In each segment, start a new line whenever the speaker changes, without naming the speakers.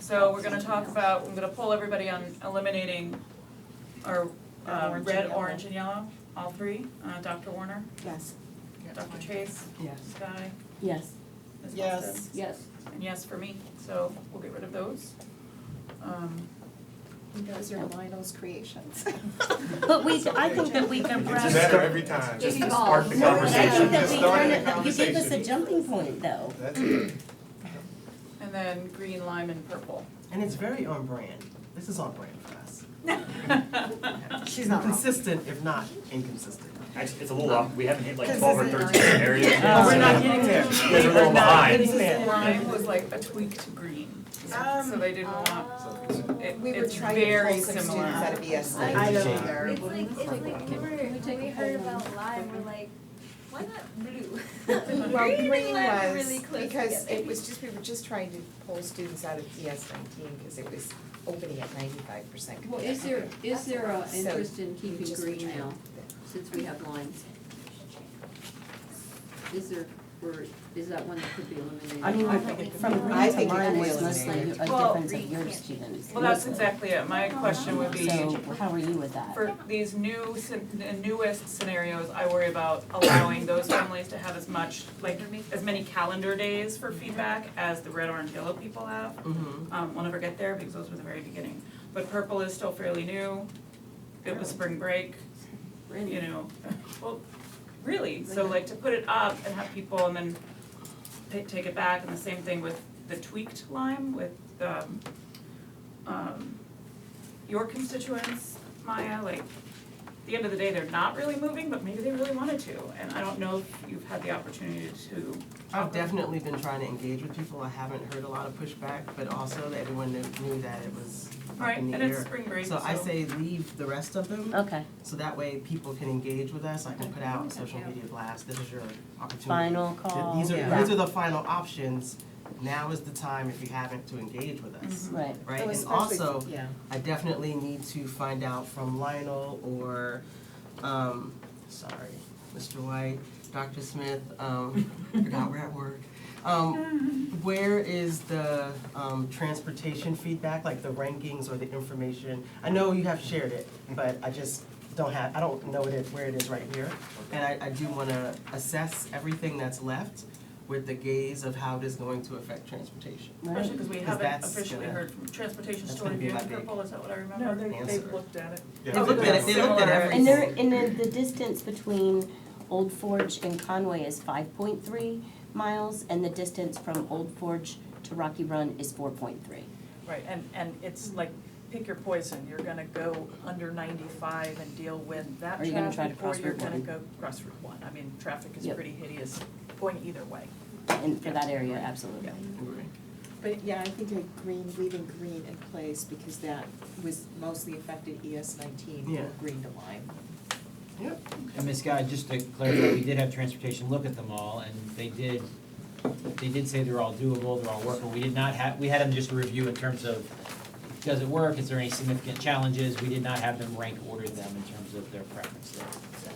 So we're gonna talk about, I'm gonna pull everybody on eliminating our uh,
Orange and
red,
yellow.
orange and yellow, all three, uh, Dr. Warner,
Yes.
Dr. Chase,
Yes.
Guy,
Yes.
Ms.
Yes.
Halsted.
Yes.
And yes for me, so we'll get rid of those. Um,
Those are Lionel's creations.
But we, I think that we can
It's
brush.
better every time, just to spark the
No, I think
conversation,
that
just
we
start
turn
the
it, you gave us a
conversation.
jumping point though.
That's it.
And then green, lime, and purple.
And it's very on brand. This is on brand for us.
She's not wrong.
Consistent, if not inconsistent.
Actually, it's a little off, we haven't hit like
Because
twelve or
this is-
thirteen areas yet.
Yeah, we're not
so-
getting there.
You guys are a little
We're not
behind.
getting there.
Lime was like a tweak to green, so so they didn't want, it,
Um, We were
it's
trying to pull
very
some
similar.
students out of E ESL.
I
don't
care.
It's like, it's like, we were, when we heard about lime, we're like, why not blue?
Well, green
lime are
was,
really close
because
together.
it was just, we were just trying to pull students out of ES nineteen, because it was opening at ninety-five percent
Well,
capacity.
is there, is there a
So,
interest in keeping
just
green
trying-
now, since we have lines? Is there, or is that one that could be eliminated?
I mean, from
I
green to
think it
mine
can
was
be
mostly a
eliminated.
Well,
difference of your
green
students.
Well, that's
mostly.
exactly it, my question would be,
So how are you with that?
For these new, scen- the newest scenarios, I worry about allowing those families to have as much, like, as many calendar days for feedback as the red, orange, yellow people have.
Mhm.
Um, we'll never get there because those were the very beginning. But purple is still fairly new. It was spring break, you know, well, really, so like to put it up and have people and then ta- take it back, and the same thing with the tweaked lime with, um, um, your constituents, Maya, like, at the end of the day, they're not really moving, but maybe they really wanted to, and I don't know if you've had the opportunity to.
I've definitely been trying to engage with people. I haven't heard a lot of pushback, but also that everyone knew- knew that it was up
Right,
in the
and
air.
it's spring break,
So I
so-
say leave the rest of them,
Okay,
so that way people can engage with us. I can put out social media blasts. This is your opportunity.
final call.
These are,
that-
these are the final options. Now is the time, if you haven't, to engage with
Mm-hmm.
us,
Right,
right?
Oh,
And
especially-
also,
yeah.
I definitely need to find out from Lionel or, um, sorry, Mr. White, Dr. Smith, um, forgot we're at work. Um, where is the, um, transportation feedback, like the rankings or the information? I know you have shared it, but I just don't have, I don't know it, where it is right here. And I, I do wanna assess everything that's left with the gaze of how it is going to affect transportation.
right.
Especially because we
Because
haven't
that's
officially
gonna-
heard from Transportation
that's
Store
gonna be
Review
my
and
big-
Purple, is that what I remember?
No, they,
Answer.
they've looked at it.
Yeah,
They looked at it, they looked at
Similar.
everything.
And there, and then the distance between Old Forge and Conway is five point three miles, and the distance from Old Forge to Rocky Run is four point three.
Right, and, and it's like, pick your poison, you're gonna go under ninety-five and deal with that
Are you gonna try to
traffic, or
cross
you're
Route
gonna
one?
go cross Route one, I mean, traffic is
Yep.
pretty hideous, going either way.
And for that area, absolutely.
Agree.
But yeah, I think a green, leaving green in place, because that was mostly affected ES nineteen,
Yeah.
or green to lime.
Yep.
And Ms. Guy, just to clarify, we did have transportation look at them all, and they did, they did say they're all doable, they're all workable. We did not have, we had them just review in terms of, does it work, is there any significant challenges? We did not have them rank order them in terms of their preference there.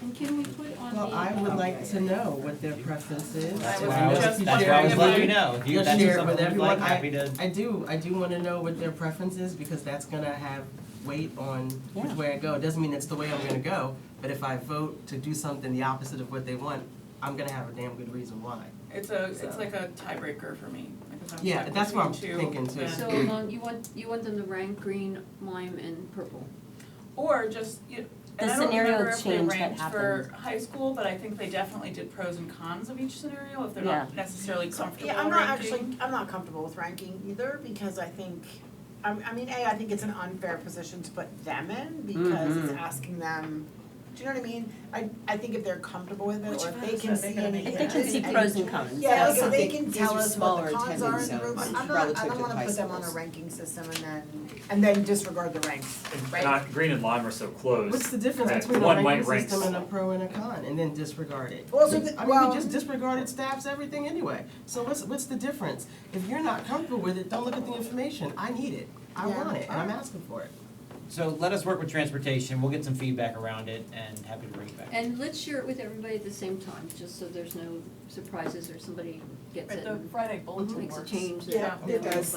And can we put on the?
Well, I would like to know what their preference is.
I
That's
was
why I was,
just
that's why I was letting
wondering
you know. If you,
You'll
that's
share it
something
with
you'd like,
everyone. I-
happy to.
I do, I do wanna know what their preference is, because that's gonna have weight on which
Yeah.
way I go. It Doesn't mean it's the way I'm gonna go, but if I vote to do something the opposite of what they want, I'm gonna have a damn good reason why.
It's a, it's
So.
like a tiebreaker for me, because I'm
Yeah,
stuck
that's what I'm
between two,
thinking too.
and-
So along, you want, you want them to rank green, lime, and purple?
Or just, you, and
The
I don't
scenario
remember if they
change that
ranked for high school, but I think they definitely did pros and cons of each scenario, if they're not necessarily comfortable
Yeah, I'm not
ranking.
actually, I'm not comfortable with ranking either, because I think, I, I mean, A, I think it's an unfair position to put them in, because it's asking them, do you know what I mean? I, I think if they're comfortable with
Which
it, or
of
if they
us
can
are they
see
gonna
any.
make
If they can see pros and cons.
Yeah, like
Yeah,
if they
so
can
these are
tell us what
smaller
the cons are in the
attendance
room,
zones
I'm not, I
relative
don't
to
wanna
high
put them on a
schools.
ranking system and then, and then disregard the ranks,
And
right?
Not, green and lime are so close.
What's the difference
that
between a
one might
ranking
rank
system and a
smaller.
pro and a con, and then disregard it?
Well, so the-
I mean,
well-
we just disregarded staffs, everything anyway, so what's, what's the difference? If you're not comfortable with it, don't look at the information, I need it, I
Yeah.
want it, and I'm asking for it.
So let us work with transportation, we'll get some feedback around it, and happy to bring it back.
And let's share it with everybody at the same time, just so there's no surprises or somebody gets
But
it
the
and
Friday bulletin
Mhm.
makes a
works.
Mhm.
change that.
Yeah, it
everyone
does.